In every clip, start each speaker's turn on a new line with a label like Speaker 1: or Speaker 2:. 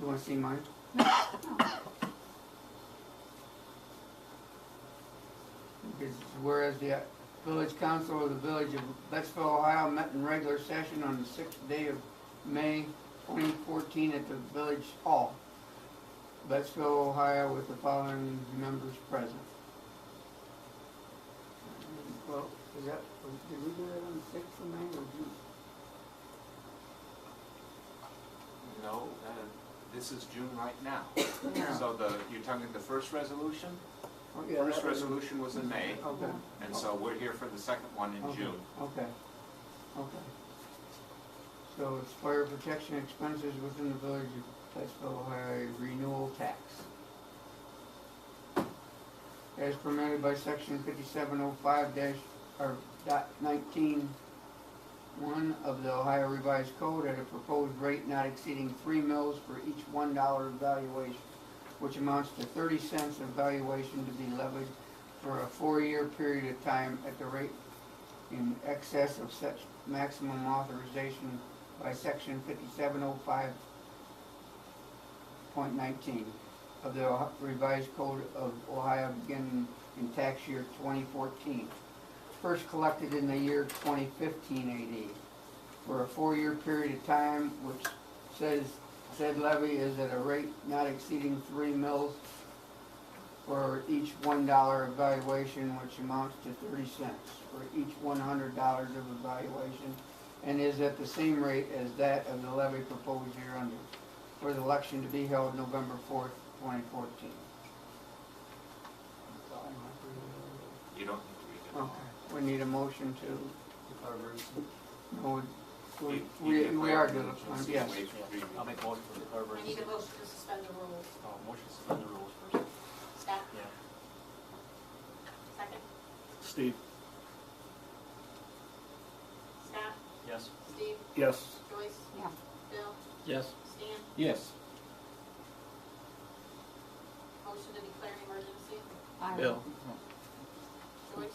Speaker 1: You wanna see mine? It's Whereas the village council of the village of Betsville, Ohio met in regular session on the sixth day of May twenty fourteen at the village hall. Betsville, Ohio with the following members present. Well, is that, did we do that on the sixth of May or did
Speaker 2: No, uh, this is June right now.
Speaker 1: Yeah.
Speaker 2: So the, you're talking the first resolution?
Speaker 1: you? Oh, Yeah,
Speaker 2: First
Speaker 1: that was-
Speaker 2: resolution was in May,
Speaker 1: Okay.
Speaker 2: and so we're here for the second one in
Speaker 1: Okay,
Speaker 2: June.
Speaker 1: Okay, okay. So it's fire protection expenses within the village of Plattsville, Ohio, renewal tax. As permitted by section fifty-seven oh five dash, or dot nineteen one of the Ohio Revised Code at a proposed rate not exceeding three mils for each one dollar valuation, which amounts to thirty cents of valuation to be levied for a four-year period of time at the rate in excess of such maximum authorization by section fifty-seven oh five point nineteen of the Ohi- revised code of Ohio beginning in tax year twenty fourteen. First collected in the year twenty fifteen AD for a four-year period of time, which says said levy is at a rate not exceeding three mils for each one dollar evaluation, which amounts to thirty cents for each one hundred dollars of evaluation, and is at the same rate as that of the levy proposed year under, for the election to be held November fourth, twenty fourteen.
Speaker 2: You don't need to read it
Speaker 1: Okay,
Speaker 2: all.
Speaker 1: we need a motion to, no, we,
Speaker 2: You- you
Speaker 1: we
Speaker 2: can
Speaker 1: we are
Speaker 2: waive
Speaker 1: doing,
Speaker 2: the emergency
Speaker 1: yes.
Speaker 2: waive the reading.
Speaker 3: I'll make motion for the third
Speaker 4: I
Speaker 3: reading.
Speaker 4: need a motion to suspend the rules.
Speaker 3: Oh, motion to suspend the rules first.
Speaker 4: Scott,
Speaker 3: Yeah.
Speaker 4: second.
Speaker 5: Steve?
Speaker 4: Scott,
Speaker 3: Yes.
Speaker 4: Steve,
Speaker 5: Yes.
Speaker 4: Joyce.
Speaker 1: Yeah.
Speaker 4: Bill,
Speaker 3: Yes.
Speaker 4: Stan,
Speaker 5: Yes.
Speaker 4: motion to declare an emergency.
Speaker 5: Bill?
Speaker 4: Joyce,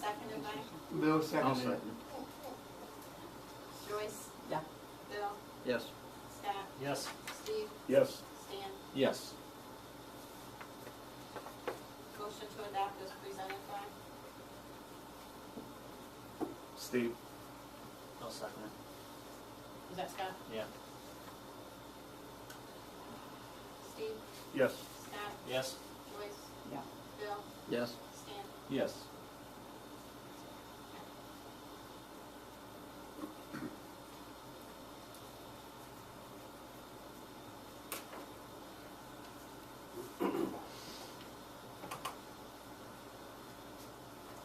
Speaker 4: seconded by
Speaker 1: Bill seconded it.
Speaker 4: Joyce.
Speaker 1: Yeah.
Speaker 4: Bill,
Speaker 5: Yes.
Speaker 4: Scott,
Speaker 3: Yes.
Speaker 4: Steve,
Speaker 5: Yes.
Speaker 4: Stan,
Speaker 5: Yes.
Speaker 4: motion to adopt as presented by
Speaker 5: Steve?
Speaker 3: I'll second it.
Speaker 4: Is that Scott?
Speaker 3: Yeah.
Speaker 4: Steve,
Speaker 5: Yes.
Speaker 4: Scott,
Speaker 3: Yes.
Speaker 4: Joyce.
Speaker 1: Yeah.
Speaker 4: Bill,
Speaker 5: Yes.
Speaker 4: Stan,
Speaker 5: Yes.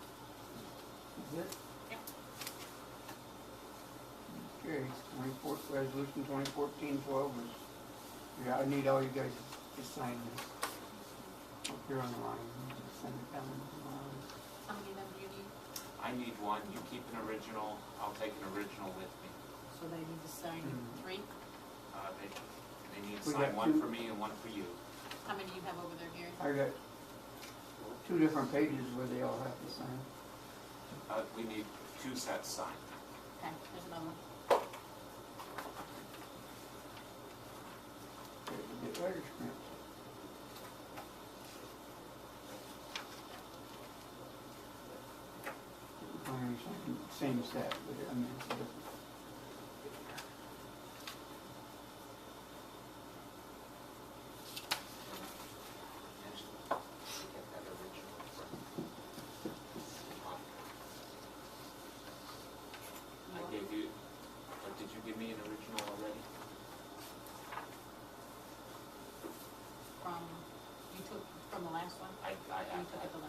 Speaker 1: Is it? Okay, twenty four, resolution twenty fourteen twelve is, yeah, I need all you guys to sign this. Up here on the line, Just send it down to
Speaker 4: how many of them do you need?
Speaker 2: I need one, you keep an original, I'll take an original with me.
Speaker 4: So they need to sign
Speaker 5: Mm-hmm.
Speaker 1: Mhm.
Speaker 4: three?
Speaker 2: Uh, They, they need to
Speaker 1: We
Speaker 2: sign
Speaker 1: got
Speaker 2: one
Speaker 1: two.
Speaker 2: for me and one for you.
Speaker 4: How many do you have over there, Gary?
Speaker 1: the line. I got two different pages where they all have to sign.
Speaker 2: Uh, We need two sets signed.
Speaker 4: Okay, there's another one.
Speaker 1: Okay, we Get letters stamped. I mean, it's Same set, but I mean, it's different.
Speaker 2: Angela, get that original from- I gave you, or did you give me an original already?
Speaker 4: From, you took from the last one?
Speaker 2: I, I have
Speaker 4: You took it the